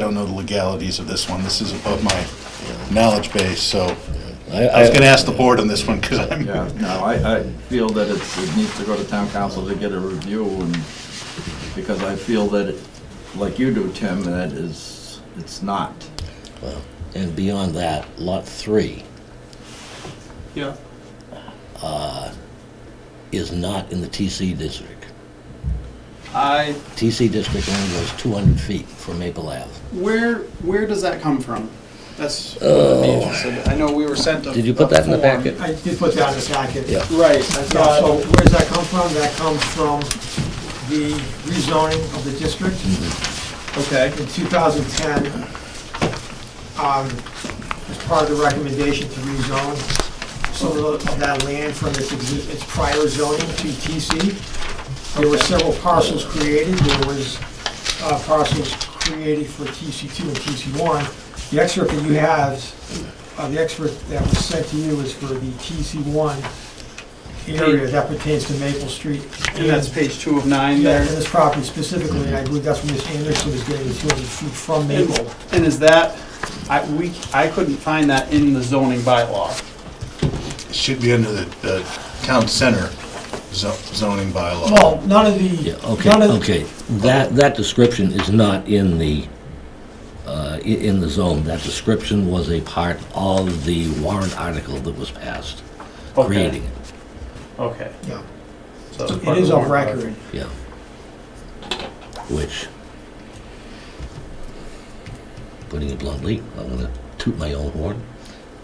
don't know the legalities of this one. This is above my knowledge base, so I I was gonna ask the board on this one, because I'm, Yeah, no, I, I feel that it's, it needs to go to town council to get a review and, because I feel that, it- like you do, Tim, that is, it's not. Well, And beyond that, Lot 3 Yeah, is not in the TC district. I, TC district only goes 200 feet from Maple Ave. where, where does that come from? That's what I'd be interested, in. I know we were sent a. Did you put that in the a form. packet? I did put that in the packet. Yeah. Right, Yeah, so so, where does that come from? That comes from the rezoning of the district okay, in 2010. um, As part of the recommendation to rezone some of the- of that land from its exi- its prior zoning to TC. There were several parcels created. There was uh, parcels created for TC2 and TC1. The excerpt that you have, uh, the excerpt that was sent to you is for the TC1 area that pertains to Maple Street. and that's page two of nine Yeah, there. and this property specifically, and I believe that's where Ms. Anderson was getting the 200 feet from Maple. And and is that, I, we, I couldn't find that in the zoning bylaw. it should be under the, the town center zo- zoning bylaw. Well, none of Yeah, the, okay, none of, the- okay. That, that description is not in the, uh, i- in the zone. That description was a part of the warrant article that was passed, Okay. creating it, Okay. yeah, so it's part it is the on warrant article. record. yeah. Which, putting it bluntly, I'm gonna toot my own horn,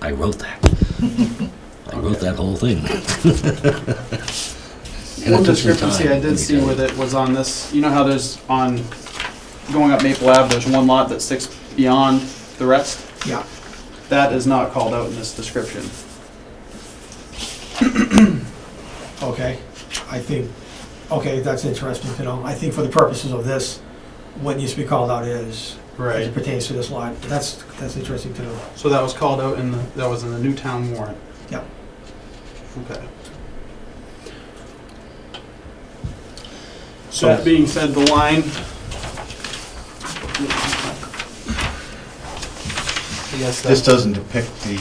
I wrote that. I wrote that whole thing. And One it took some discrepancy time, I let me did see tell you. with it was on this, you know how there's on, going up Maple Ave, there's one lot that sticks beyond the rest? Yeah, That is not called out in this description. okay. I think, okay, that's interesting to know. I think for the purposes of this, what needs to be called out is, as it pertains to this lot, that's, that's interesting to know. So that was called out in the, that was in the Newtown warrant? Yeah. Okay. So So, that being said, the line. this Yes, that's doesn't depict the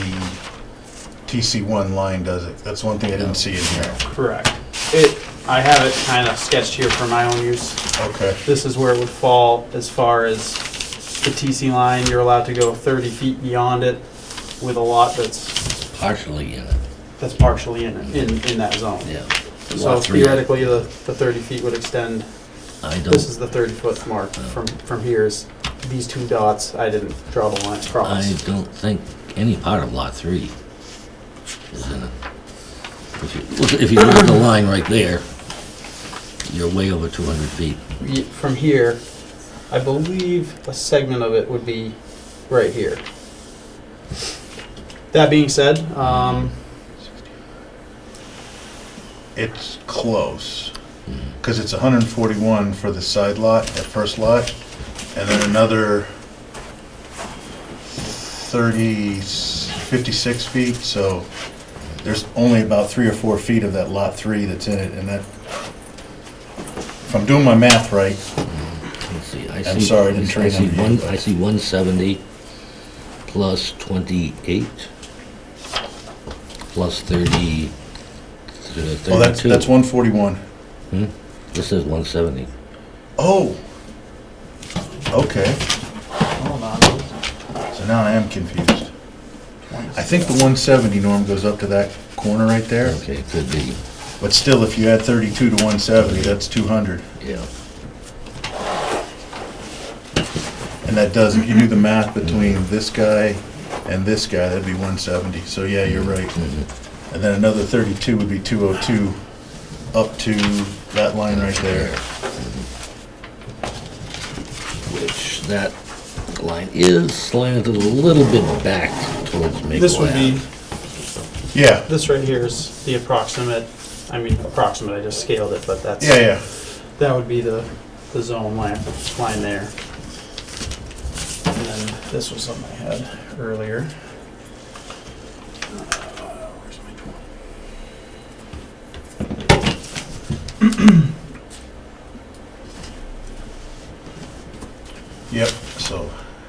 TC1 line, does it? That's one thing I didn't see in here. correct. It, I have it kind of sketched here for my own use. Okay, This is where it would fall as far as the TC line. You're allowed to go 30 feet beyond it with a lot that's, Partially in it, that's partially in, in, in that zone. yeah. So Lot three, theoretically, the, the 30 feet would extend I This is don't, Oh. the 30-foot mark from, from here is these two dots, I didn't draw the line I across. don't think any part of lot three is in it. If you, look- if you look at the line right there, you're way over two hundred feet. Ye- From here, I believe a segment of it would be right here. That being said, um, it's close, because it's 141 for the side lot, that first lot, and then another 30, 56 feet, so there's only about three or four feet of that lot three that's in it, and that, if I'm doing my math right, oh, Let's see, I see. I'm sorry, I didn't train see on you, one- but- I see one seventy plus twenty-eight plus thirty, uh, thirty-two. oh, that's, that's 141. This is one seventy. Oh, okay. hold on, So now I am confused. I think the 170, Norm, goes up to that corner right there, Okay, could be, but still, if you add 32 to 170, that's 200. yeah. And that does, if you do the math between this guy and this guy, that'd be 170. So yeah, you're right. And then another 32 would be 202 up to that line right there. Which, that line is slanted a little bit back towards Maple Ave. this would be, Yeah, this right here is the approximate, I mean, approximate, I just scaled it, but that's, yeah, yeah. that would be the, the zone line, line there. And then this was something I had earlier. Uh,